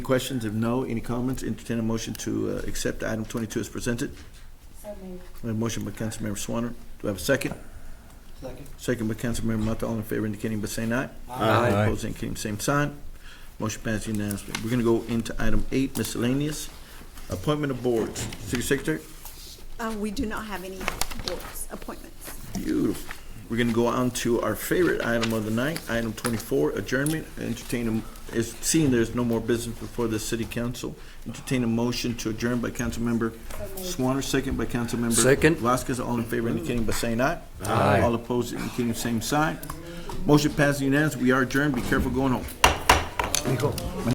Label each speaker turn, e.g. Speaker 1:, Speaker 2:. Speaker 1: questions? If no, any comments? Entertain a motion to uh, accept item twenty-two as presented.
Speaker 2: So moved.
Speaker 1: I have a motion by Councilmember Swanner. Do I have a second?
Speaker 3: Second.
Speaker 1: Second by Councilmember Mata. All in favor indicating by saying aye.
Speaker 4: Aye.
Speaker 1: Opposed, indicating same sign. Motion passed unanimously. We're gonna go into item eight, miscellaneous. Appointment of boards. City Secretary?
Speaker 5: Uh, We do not have any boards appointments.
Speaker 1: Beautiful. We're gonna go on to our favorite item of the night, item twenty-four, adjournment. Entertain, a- is, seeing there's no more business before the city council, entertain a motion to adjourn by Councilmember Swanner, second by Councilmember.
Speaker 4: Second.
Speaker 1: Vasquez, all in favor indicating by saying aye.
Speaker 4: Aye.
Speaker 1: All opposed indicating same sign. Motion passed unanimously. We are adjourned. Be careful going home.
Speaker 4: Nico.